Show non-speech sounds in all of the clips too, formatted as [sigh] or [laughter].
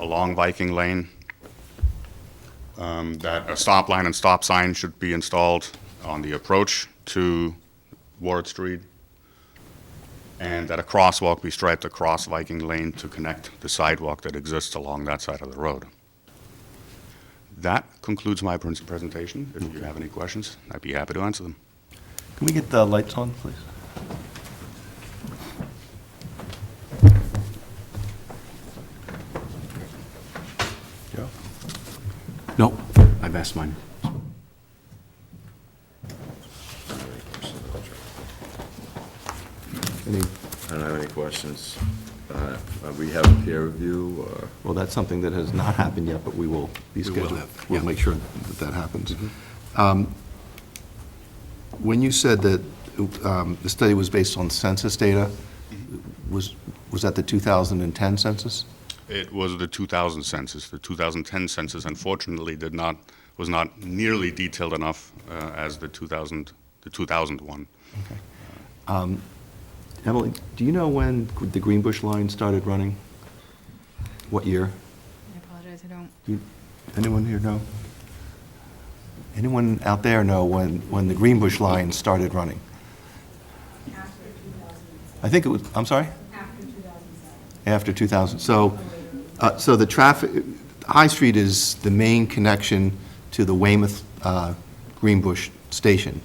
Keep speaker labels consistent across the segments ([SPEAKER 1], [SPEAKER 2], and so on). [SPEAKER 1] along Viking Lane, um, that a stop line and stop sign should be installed on the approach to Ward Street, and that a crosswalk be striped across Viking Lane to connect the sidewalk that exists along that side of the road. That concludes my pres- presentation. If you have any questions, I'd be happy to answer them.
[SPEAKER 2] Can we get the lights on, please?
[SPEAKER 3] No, I've asked mine. Any,
[SPEAKER 4] I don't have any questions. Uh, uh, We have a peer review, or,
[SPEAKER 2] Well, that's something that has not happened yet, but we will be
[SPEAKER 3] we will
[SPEAKER 2] scheduled.
[SPEAKER 3] have, yeah. Mm-hmm.
[SPEAKER 5] We'll make sure that that happens. Um, When you said that um, the study was based on census data, was, was that the 2010 census?
[SPEAKER 1] It was the 2000 census. The 2010 census unfortunately did not, was not nearly detailed enough uh, as the 2000, the 2001.
[SPEAKER 2] Emily, do you know when the Green Bush Line started running? What year?
[SPEAKER 6] I apologize, I don't.
[SPEAKER 2] Do you- Anyone here know? Anyone out there know when, when the Green Bush Line started running?
[SPEAKER 7] After 2000,
[SPEAKER 2] I think it was, I'm sorry?
[SPEAKER 7] after 2007.
[SPEAKER 2] After 2000. So, uh, so the traffic, High Street is the main connection to the Weymouth uh, Greenbush Station,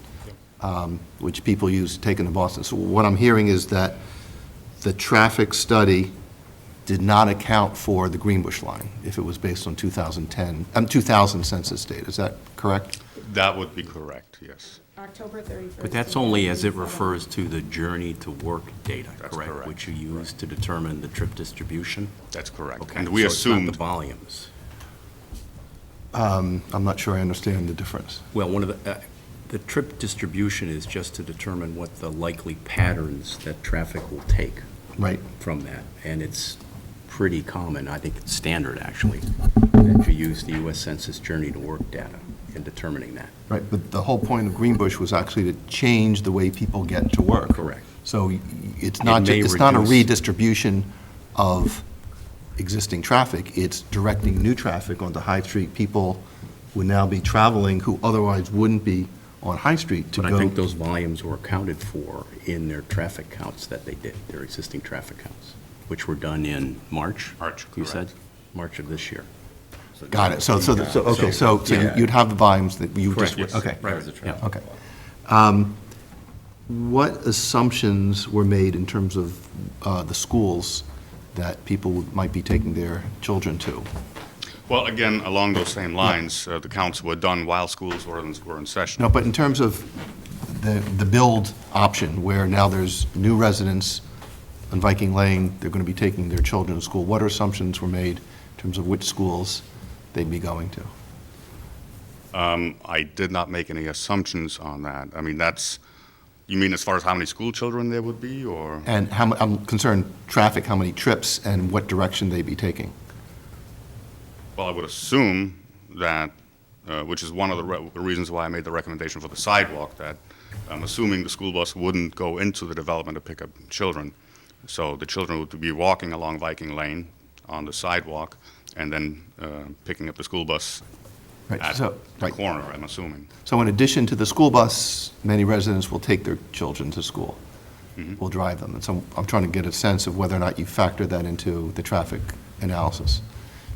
[SPEAKER 2] um, which people use taking to Boston. So what I'm hearing is that the traffic study did not account for the Greenbush line, if it was based on 2010, um, 2000 census data. Is that correct?
[SPEAKER 1] That would be correct, yes.
[SPEAKER 7] October 31st.
[SPEAKER 3] but that's only as it
[SPEAKER 7] 2007.
[SPEAKER 3] refers to the journey to work data,
[SPEAKER 1] That's
[SPEAKER 3] correct?
[SPEAKER 1] correct,
[SPEAKER 3] Which you use to determine the trip distribution?
[SPEAKER 1] That's correct.
[SPEAKER 3] Okay,
[SPEAKER 1] And we
[SPEAKER 3] so it's not
[SPEAKER 1] assumed,
[SPEAKER 3] the volumes.
[SPEAKER 2] Um, I'm not sure I understand the difference.
[SPEAKER 3] Well, one of the, uh, the trip distribution is just to determine what the likely patterns that traffic will take
[SPEAKER 2] Right.
[SPEAKER 3] from that. And it's pretty common, I think it's standard, actually, that you use the US Census Journey to Work data in determining that.
[SPEAKER 2] Right, but the whole point of Greenbush was actually to change the way people get to work.
[SPEAKER 3] Correct.
[SPEAKER 2] So y- it's not, ju-
[SPEAKER 3] may
[SPEAKER 2] it's not a
[SPEAKER 3] reduce-
[SPEAKER 2] redistribution of existing traffic, it's directing new traffic onto High Street. People would now be traveling who otherwise wouldn't be on High Street to go.
[SPEAKER 3] But I think those volumes were accounted for in their traffic counts that they did, their existing traffic counts, which were done in March?
[SPEAKER 1] March,
[SPEAKER 3] You said?
[SPEAKER 1] correct.
[SPEAKER 3] March of this year.
[SPEAKER 2] Got it, so, so, the- so- okay, so, so
[SPEAKER 4] Yeah.
[SPEAKER 2] you'd have the volumes that you just.
[SPEAKER 3] Correct, yes.
[SPEAKER 2] Okay.
[SPEAKER 3] Right,
[SPEAKER 4] As a
[SPEAKER 3] yeah.
[SPEAKER 4] traffic
[SPEAKER 2] Okay. Um,
[SPEAKER 4] law.
[SPEAKER 2] What assumptions were made in terms of uh, the schools that people would- might be taking their children to?
[SPEAKER 1] well, again, along those same lines, uh, the counts were done while schools were in, were in session.
[SPEAKER 2] No, but in terms of the, the build option, where now there's new residents on Viking Lane, they're going to be taking their children to school, what assumptions were made in terms of which schools they'd be going to?
[SPEAKER 1] Um, I did not make any assumptions on that. I mean, that's, you mean as far as how many school children there would be, or?
[SPEAKER 2] And how, mu- I'm concerned, traffic, how many trips, and what direction they'd be taking?
[SPEAKER 1] Well, I would assume that, uh, which is one of the re- reasons why I made the recommendation for the sidewalk, that I'm assuming the school bus wouldn't go into the development to pick up children. So the children would be walking along Viking Lane on the sidewalk and then uh, picking up the school bus
[SPEAKER 2] Right,
[SPEAKER 1] at
[SPEAKER 2] so-
[SPEAKER 1] the
[SPEAKER 2] right.
[SPEAKER 1] corner, I'm assuming.
[SPEAKER 2] So in addition to the school bus, many residents will take their children to school, will drive them. And so I'm trying to get a sense of whether or not you factor that into the traffic analysis.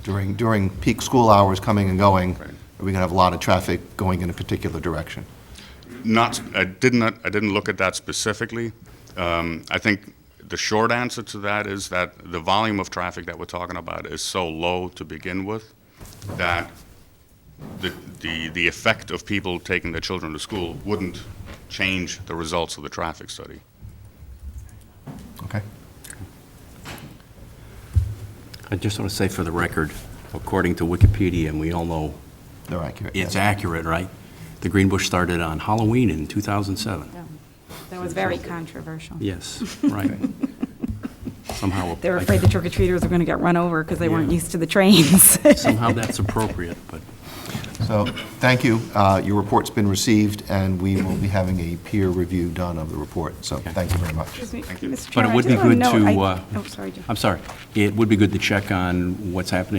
[SPEAKER 2] During, during peak school hours coming and going,
[SPEAKER 1] Right.
[SPEAKER 2] are we going to have a lot of traffic going in a particular direction?
[SPEAKER 1] Not, I did not, I didn't look at that specifically. Um, I think the short answer to that is that the volume of traffic that we're talking about is so low to begin with that the, the, the effect of people taking their children to school wouldn't change the results of the traffic study.
[SPEAKER 2] Okay?
[SPEAKER 3] I just want to say for the record, according to Wikipedia, and we all know
[SPEAKER 2] They're accurate.
[SPEAKER 3] it's
[SPEAKER 2] yes.
[SPEAKER 3] accurate, right? The Green Bush started on Halloween in 2007.
[SPEAKER 6] That was very controversial.
[SPEAKER 3] Yes, right. Somehow.
[SPEAKER 6] [laughs] They were afraid the trick-or-treaters were going to get run over because they weren't used to the trains.
[SPEAKER 3] [laughs]
[SPEAKER 6] [laughs]
[SPEAKER 3] Somehow that's appropriate, but.
[SPEAKER 2] So, thank you. Uh, Your report's been received, and we will be having a peer review done of the report. So, thank you very much.
[SPEAKER 6] Excuse me, Mr.
[SPEAKER 3] But
[SPEAKER 6] Chairman,
[SPEAKER 3] it
[SPEAKER 6] I
[SPEAKER 3] would
[SPEAKER 6] just
[SPEAKER 3] be
[SPEAKER 6] wanna
[SPEAKER 3] good
[SPEAKER 6] know-
[SPEAKER 3] to,
[SPEAKER 6] I-
[SPEAKER 3] uh,
[SPEAKER 6] Oh, sorry, Jim.
[SPEAKER 3] I'm sorry. It would be good to check on what's happening